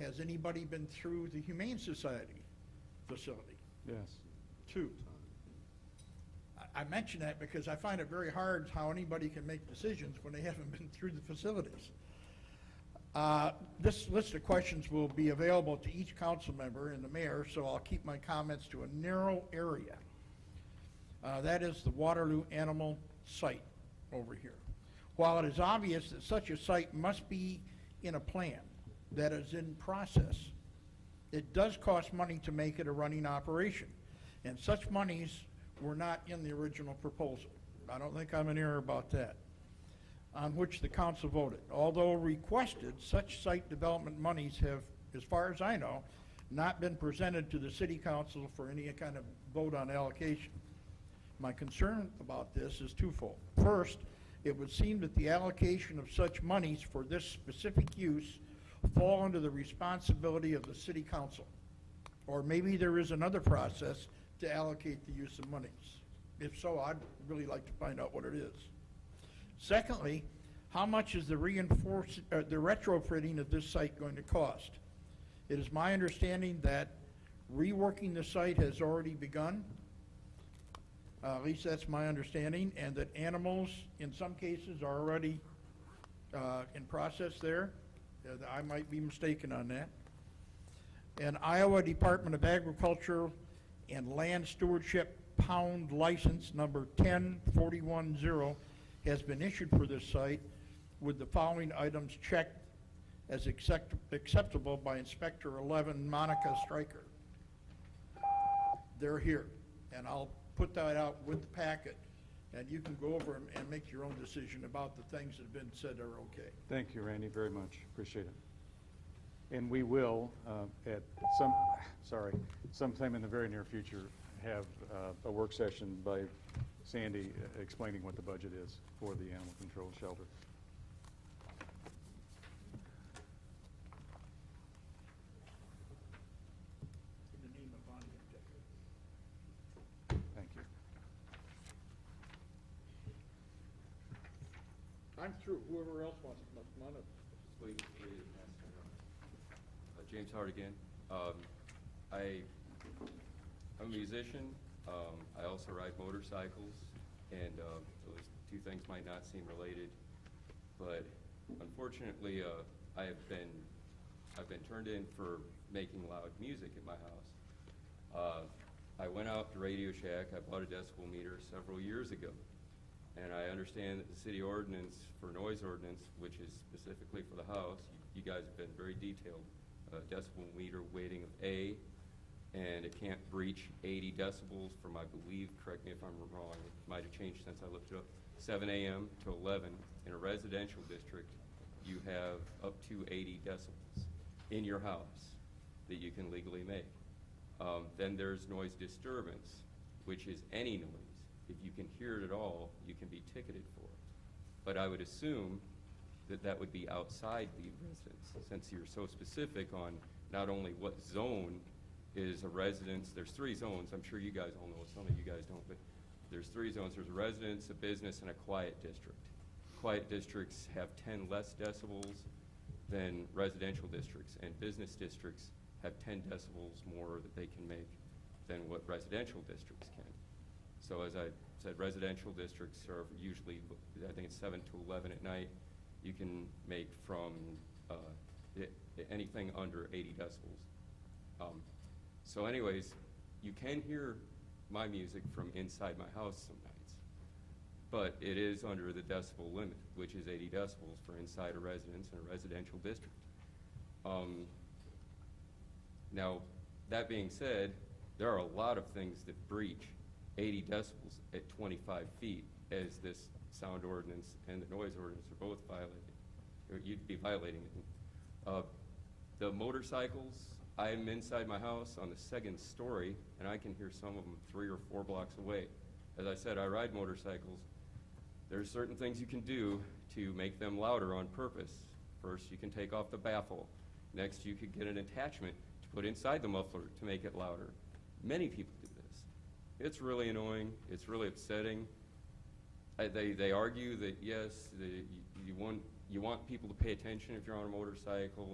has anybody been through the Humane Society facility? Yes. Two. I- I mention that because I find it very hard how anybody can make decisions when they haven't been through the facilities. Uh, This list of questions will be available to each council member and the mayor, so I'll keep my comments to a narrow area. Uh, That is the Waterloo Animal Site over here. While it is obvious that such a site must be in a plan that is in process, it does cost money to make it a running operation, and such monies were not in the original proposal. I don't think I'm in error about that, on which the council voted. Although requested, such site development monies have, as far as I know, not been presented to the city council for any kind of vote on allocation. My concern about this is twofold. First, it would seem that the allocation of such monies for this specific use fall under the responsibility of the city council. Or maybe there is another process to allocate the use of monies. If so, I'd really like to find out what it is. Secondly, how much is the reinforce, uh, the retrofitting of this site going to cost? It is my understanding that reworking the site has already begun. Uh, At least that's my understanding, and that animals, in some cases, are already uh, in process there. Uh, I might be mistaken on that. And Iowa Department of Agriculture and Land Stewardship Pound License Number 10410 has been issued for this site with the following items checked as accept- acceptable by Inspector 11 Monica Stryker they're here. And I'll put that out with the packet, and you can go over and, and make your own decision about the things that have been said are okay. Thank you, Randy, very much. Appreciate it. And we will, uh, at some, sorry, sometime in the very near future, have uh, a work session by Sandy uh, explaining what the budget is for the animal control shelter. In the name of Bonnie and Dick. Thank you. I'm through, whoever else wants to come on up. Wait, wait, uh, James Howard again. Um, I, I'm a musician. Um, I also ride motorcycles, and um, those two things might not seem related. But unfortunately, uh, I have been, I've been turned in for making loud music at my house. Uh, I went out to Radio Shack. I bought a decibel meter several years ago. And I understand that the city ordinance for noise ordinance, which is specifically for the house, you you guys have been very detailed, uh, decibel meter weighting of A, and it can't breach eighty decibels from, I believe, correct me if I'm wrong, it might have changed since I looked it up, seven AM to eleven. In a residential district, you have up to eighty decibels in your house that you can legally make. Um, Then there's noise disturbance, which is any noise. If you can hear it at all, you can be ticketed for it. But I would assume that that would be outside the residence, since you're so specific on not only what zone is a residence, there's three zones, I'm sure you guys all know, some of you guys don't, but there's three zones, there's a residence, a business, and a quiet district. Quiet districts have ten less decibels than residential districts, and business districts have ten decibels more that they can make than what residential districts can. So as I said, residential districts are usually, I think it's seven to eleven at night. You can make from, uh, i- anything under eighty decibels. Um, So anyways, you can hear my music from inside my house some nights. But it is under the decibel limit, which is eighty decibels for inside a residence in a residential district. Um, now, that being said, there are a lot of things that breach eighty decibels at twenty-five feet, as this sound ordinance and the noise ordinance are both violated, or you'd be violating it. Uh, The motorcycles, I'm inside my house on the second story, and I can hear some of them three or four blocks away. As I said, I ride motorcycles, there's certain things you can do to make them louder on purpose. First, you can take off the baffle. Next, you could get an attachment to put inside the muffler to make it louder. Many people do this. It's really annoying, it's really upsetting. I- They, they argue that, yes, the, you- you want, you want people to pay attention if you're on a motorcycle